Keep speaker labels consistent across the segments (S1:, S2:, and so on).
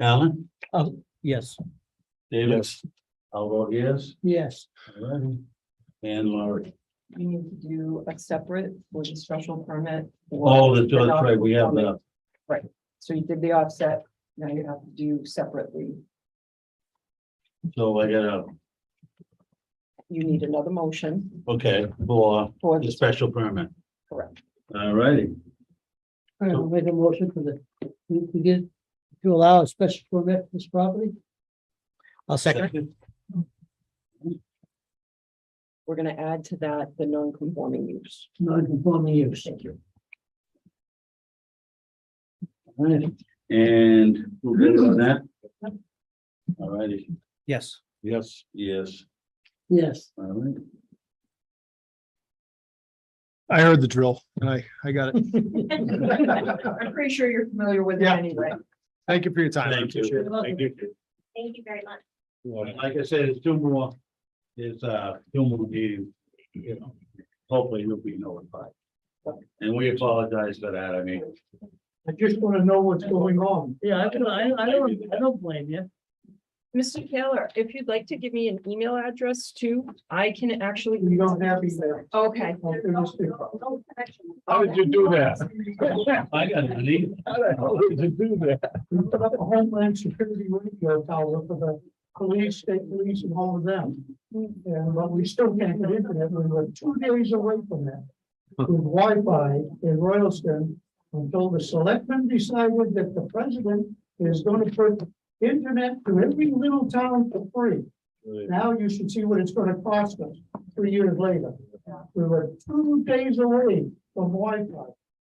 S1: Alan?
S2: Yes.
S1: Davis? I'll vote yes.
S2: Yes.
S1: Alrighty. And Laurie.
S3: We need to do a separate for the special permit.
S1: Oh, that's that's right, we have that.
S3: So you did the offset, now you have to do separately.
S1: So I gotta,
S3: You need another motion
S1: okay, for
S3: for
S1: the
S3: the
S1: special permit.
S3: Correct.
S1: Alrighty,
S2: All right, I'll make a motion for the, we, we get to allow a special permit for this property. I'll second.
S3: We're gonna add to that the non-conforming use.
S2: Non-conforming use.
S3: Thank you.
S1: alright, and we're good on that? Alrighty,
S2: Yes.
S1: yes, yes,
S2: Yes.
S1: alright.
S4: I heard the drill and I, I got it.
S3: I'm pretty sure you're familiar with it
S4: Yeah.
S3: anyway.
S4: Thank you for your time. I
S1: Thank you.
S4: appreciate it.
S1: Thank you.
S5: Thank you very much.
S1: Like I said, it's two more, there's uh, two more meetings, you know, hopefully you'll be notified. And we apologize for that, I mean,
S2: I just want to know what's going on. Yeah, I don't, I, I don't, I don't blame you.
S3: Mr. Taylor, if you'd like to give me an email address too, I can actually.
S2: We don't have email.
S3: Okay. Oh,
S4: How did you do that?
S1: I got an email.
S4: How did you do that?
S2: We put up a homeland security radio tower for the police, state police and all of them. And but we still can't get internet. We were two days away from that. With Wi-Fi in Royalston until the selectmen decided that the president is going to put internet to every little town for free. Now you should see what it's gonna cost us three years later. We were two days away from Wi-Fi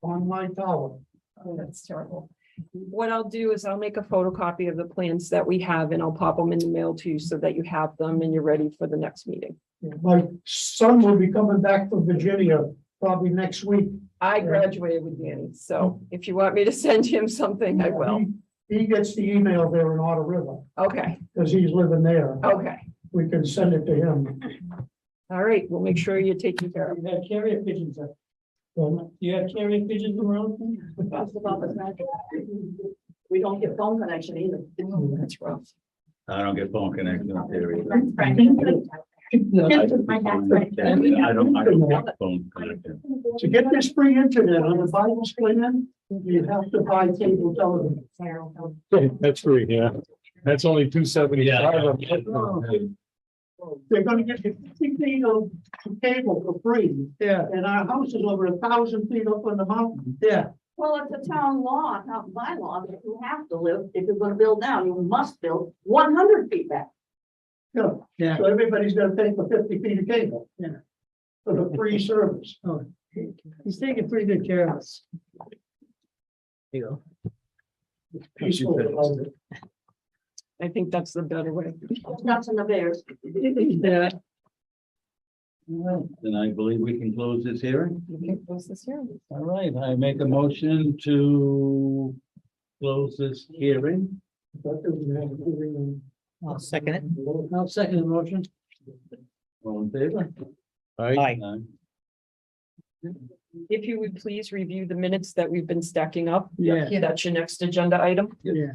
S2: on my tower.
S3: Oh, that's terrible. What I'll do is I'll make a photocopy of the plans that we have and I'll pop them in the mail to you so that you have them and you're ready for the next meeting.
S2: My son will be coming back from Virginia probably next week.
S3: I graduated with Danny, so if you want me to send him something, I will.
S2: He he gets the email there in Otter River,
S3: Okay,
S2: because he's living there.
S3: okay.
S2: We can send it to him.
S3: All right, we'll make sure you're taken care of.
S2: You have carrier pigeons up. Do you have carrier pigeons around?
S3: We don't get phone connection either. That's rough.
S1: I don't get phone connection up there either.
S5: That's right.
S1: I don't, I don't get phone connection.
S2: To get this free internet on the Bible plan, you have to buy cable television.
S4: That's free, yeah. That's only two seventy-five.
S2: They're gonna get you fifty feet of cable for free. Yeah. And our house is over a thousand feet up on the mountain. Yeah.
S6: Well, it's a town law, it's not by law, that you have to live, if you're gonna build down, you must build one hundred feet back.
S2: Yeah.
S7: Yeah.
S2: So everybody's gonna pay for fifty feet of cable. Yeah. For the free service.
S7: Oh. He's taking pretty good care of us. There you go.
S2: Peaceful about it.
S3: I think that's the better way.
S6: Nuts and the bears.
S7: Yeah,
S1: Then I believe we can close this hearing.
S3: You can close this hearing.
S1: All right, I make a motion to close this hearing.
S7: I'll second it.
S2: I'll second the motion.
S1: All in favor?
S7: Aye.
S1: Aye.
S3: If you would please review the minutes that we've been stacking up.
S7: Yeah.
S3: That's your next agenda item.
S7: Yeah.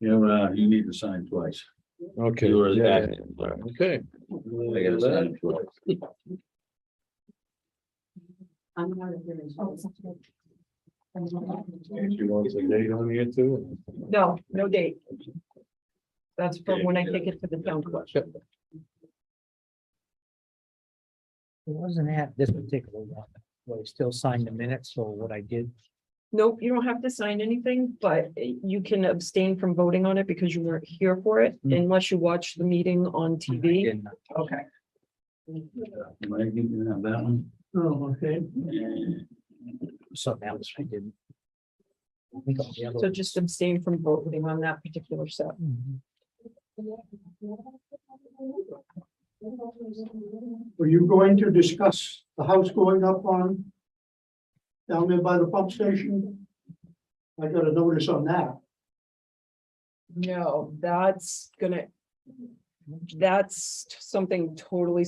S1: You're, uh, you need to sign twice.
S4: Okay.
S1: You were
S4: yeah,
S1: back.
S4: yeah. Okay.
S1: I gotta sign twice.
S6: I'm not a hearing.
S3: Oh.
S4: She wants a date on here too.
S3: No, no date. That's from when I take it to the town clerk.
S7: It wasn't at this particular one, but I still signed the minutes or what I did.
S3: Nope, you don't have to sign anything, but eh, you can abstain from voting on it because you weren't here for it
S7: Mm.
S3: unless you watch the meeting on TV.
S7: Didn't I?
S3: Okay.
S1: Mike, you can have that one.
S2: Oh, okay.
S7: Something else I didn't. I think all the other
S3: So just abstain from voting on that particular set.
S7: ones.
S2: Were you going to discuss the house going up on? Down there by the pump station? I got a notice on that.
S3: No, that's gonna. That's something totally